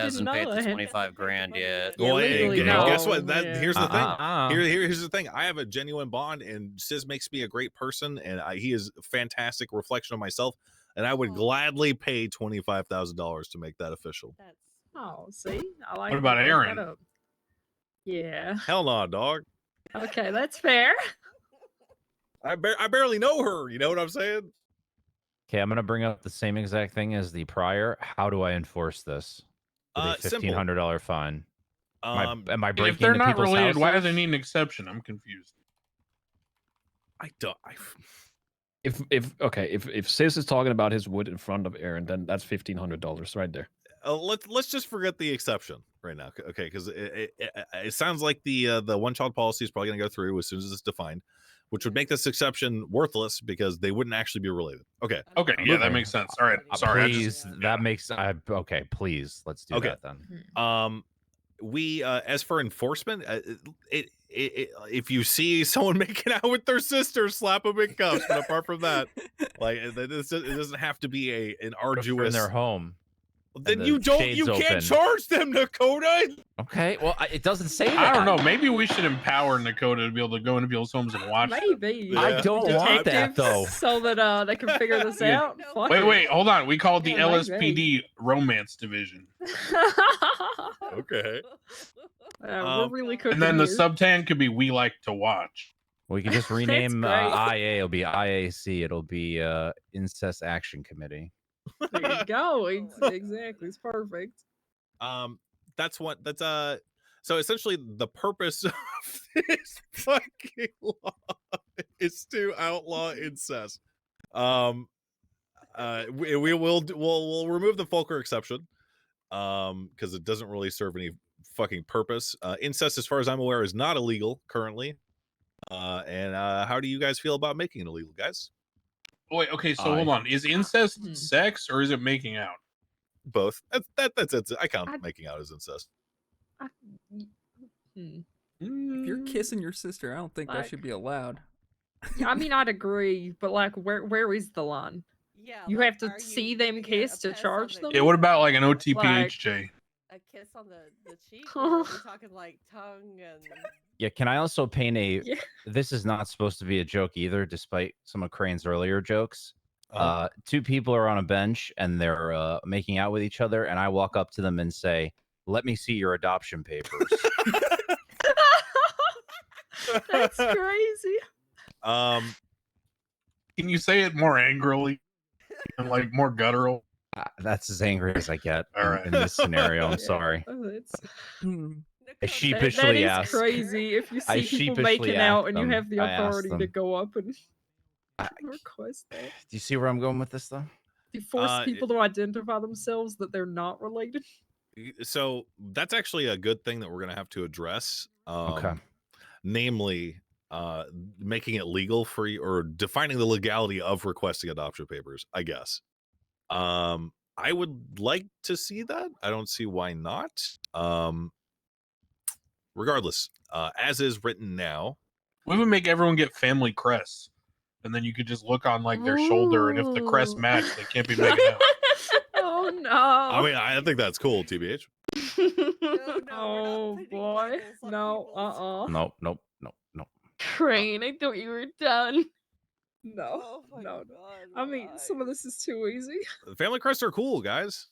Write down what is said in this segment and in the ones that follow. hasn't paid the knowledge. twenty five grand yet. Well, and- Legally, and guess what? no, That yeah. here's the thing. Uh-uh. Uh, Here, here- here's the thing. I have a genuine bond, and Sis makes me a great person, and I, he is a fantastic reflection of myself. And I would Aw. gladly pay twenty five thousand dollars to make that official. That's oh, see, I like. about I like that Aaron? up. Yeah. Hell no, dog. Okay, that's fair. I bar- I barely know her. You know what I'm saying? Okay, I'm gonna bring up the same exact thing as the prior. How do I enforce this? With Uh, a fifteen simple. hundred dollar fine. Am I- Um, am I breaking if they're into not people's related, why do they houses? need an exception? I'm confused. I don't. I, If if okay, if if Sis is talking about his wood in front of Aaron, then that's fifteen hundred dollars right there. uh, let's let's just forget the exception right now, c- okay? Because it, it, it- it sounds like the uh, the one child policy is probably going to go through as soon as it's defined, which would make this exception worthless because they wouldn't actually be related. Okay, Okay, yeah, that Okay. makes sense. All right, Uh, sorry. I just, please, that makes I okay. Please, let's do Okay. that then. um, we uh, as for enforcement, uh, it, it, it if you see someone making out with their sister, slap them in cuffs. But apart from that, like it, it doesn't it doesn't have to be a an If you're in arduous. their home. Then the you don't shades you open. can't charge them, Dakota. Okay. Well, I, it doesn't say that. I don't know. Maybe we should empower Nakota to be able to go into people's homes and watch. them. Maybe. I Yeah. don't want that, Detectives, though. So that uh, they can figure this Yeah. out. No. Fuck Wait, it. wait, hold on. We called the Yeah, maybe. LSPD Romance Division, Uh, Okay. we're Um, really cooking and then the here. subtan could be "We Like to Watch." We can just That's rename uh, great. IA. It'll be IAC. It'll be uh, Incest Action Committee. There you go. Ex- Exactly. It's perfect. um that's what that's uh so essentially the purpose of this fucking law is to outlaw incest um uh we, we will d- we'll we'll remove the Folker exception um because it doesn't really serve any fucking purpose uh incest as far as i'm aware is not illegal currently uh and uh how do you guys feel about making it illegal guys Wait, okay, so I- hold on. Is Hmm. incest sex or is it making out? both that's that that's it i count I- making out as incest Hmm. If you're kissing your sister, I don't think Mm-hmm. Like- that should be allowed. Yeah, I mean, I'd agree, but like, where where is the line? yeah. You like, have to are see you them gonna kiss to piss on charge the them? Yeah, what about like an cheek? OTPHJ? A kiss on the the cheek? Or are we talking like tongue and Yeah. Can I also paint a? Yeah. This is not supposed to be a joke either, despite some of Crane's earlier jokes. Um, Uh, two people are on a bench and they're uh, making out with each other, and I walk up to them and say, "Let me see your adoption papers." That's crazy. um Can you say it more angrily and like more guttural? Uh, That's as angry as I get All in- right. in this scenario. Yeah. I'm sorry. Oh, that's- Hmm. Dakota, that- that sheepishly is asked. crazy. If you I see people sheepishly making out asked and you them- have the I asked authority to them. go up and I- request that, Do you see where I'm going with this, though? you force Uh, people to identify themselves that they're not related. Y- so that's actually a good thing that we're going to have to address um, Okay. namely uh making it legal for you or defining the legality of requesting adoption papers i guess um i would like to see that i don't see why not um regardless uh as is written now We would make everyone get family crests. And then you could just look on like their shoulder, and if the crest Ooh. match, they can't be making out. oh no! i mean i think that's cool tbh oh no, no, we're not putting boy! labels on No, uh, people's- uh Nope, nope, nope, nope. Crane, I thought you were done. no, Oh my no. God, I mean, Ryan. some of this is too easy. family crests are cool guys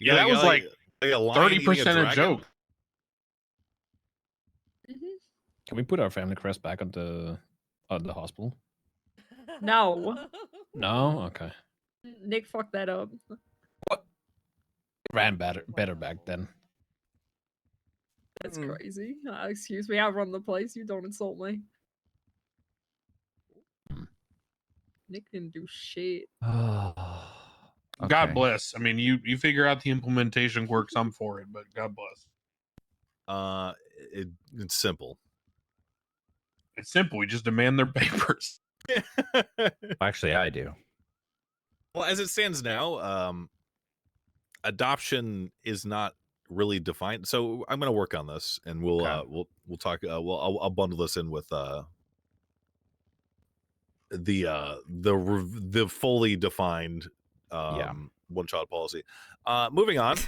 You Yeah, gotta that get, was, like, like a lion Thirty eating a percent a dragon. joke. Can we put our family crest back on the on the hospital? No. No, okay. Mm-hmm. Nick fucked that up. Ran better better back then. That's Mm. crazy. Uh, excuse me, I run the place. You don't insult me. Nick didn't do shit. Okay. God bless. I mean, you you figure out the implementation works. I'm for it, but God bless. uh it, it's simple It's simple. We just demand their papers. Actually, I do. Well, as it stands now, um, adoption is not really defined. So I'm going to work on this, and we'll Okay. uh, we'll we'll talk. Uh, we'll I'll, I'll bundle this in with uh, the uh, the rev- the fully defined um, Yeah. one child policy. Uh, moving on.